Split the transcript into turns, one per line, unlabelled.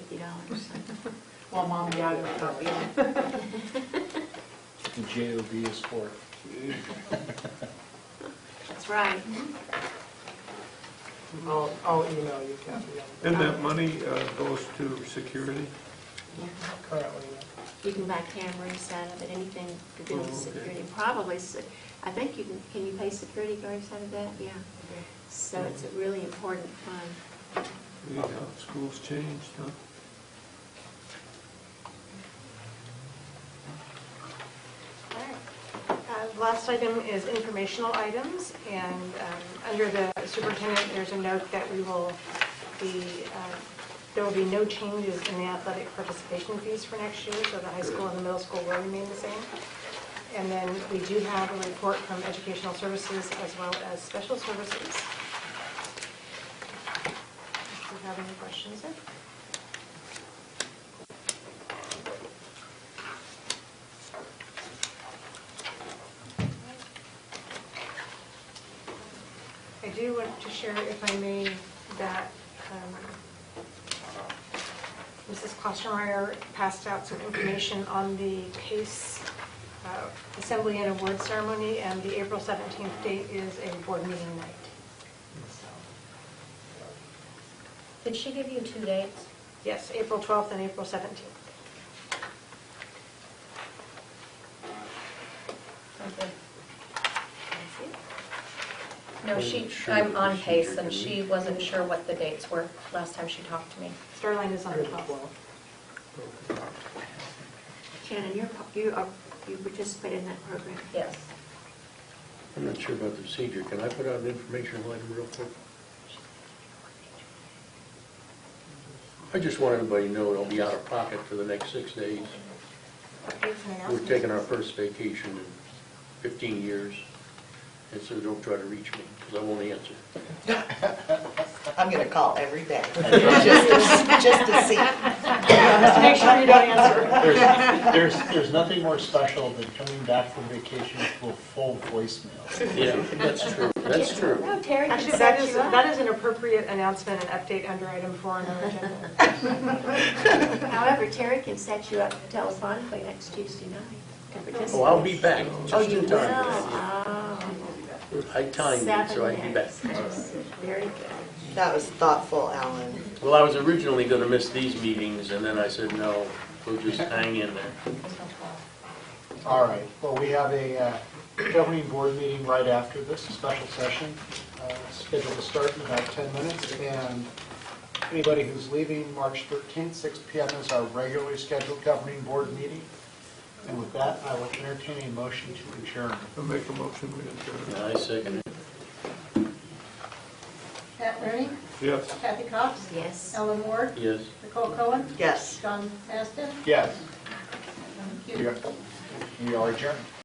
dollars. Well, mom and dad are probably.
And JOB is for
That's right.
I'll, I'll email you, Kathy.
And that money uh, goes to security?
Yeah.
Currently,
You can buy cameras out of it, anything to do with
Oh, okay.
security. Probably, se- I think you can, can you pay security guards out of that? Yeah. So it's a really important fund.
You know, schools changed, huh?
All right. Uh, Last item is informational items, and um, under the superintendent, there's a note that we will be, uh, there will be no changes in the athletic participation fees for next year, so the high school and the middle school will remain the same. And then we do have a report from educational services as well as special services. If you have any questions there. I do want to share, if I may, that um, Mrs. Klostermeyer passed out some information on the PACE uh, Assembly and Award Ceremony, and the April 17th date is a board meeting night. So,
Did she give you two dates?
Yes, April 12th and April 17th.
Okay. No, she, I'm on pace, and she wasn't sure what the dates were last time she talked to me.
Starline
Oh,
is on the
Under the
12th.
twelve.
Shannon, you're, pa- you are, you participate in that program?
Yes.
I'm not sure about the procedure. Can I put out an informational item real quick? I just want everybody to know it'll be out of pocket for the next six days.
Updates and
We're
announcements.
taking our first vacation in 15 years, and so don't try to reach me, because I won't answer.
I'm gonna call every day, just to, just to see.
Just make sure you don't answer.
There's, there's, there's nothing more special than coming back from vacation to a full voicemail.
Yeah, that's true, that's true.
No, Terry
Actually, that is, that is an appropriate announcement and update under item four on our agenda.
However, Terry can set you up telephonically next Tuesday night to participate.
Oh, I'll be back,
Oh,
just
you
in
will?
time.
Oh.
I timed it, so I'd be back.
Seven days. Very good.
That was thoughtful, Alan.
Well, I was originally going to miss these meetings, and then I said, no, we'll just hang in there.
All right, well, we have a uh, governing board meeting right after this, a special session, uh, scheduled to start in about 10 minutes. And anybody who's leaving March 13th, 6 PM is our regularly scheduled governing board meeting. And with that, I will entertain a motion to adjourn.
I make a motion, we adjourn.
I second it.
Pat Rooney,
Yes.
Kathy Cox,
Yes.
Ellen Ward,
Yes.
Nicole Cohen,
Yes.
John Aston.
Yes,
Thank you.
we are we are adjourned.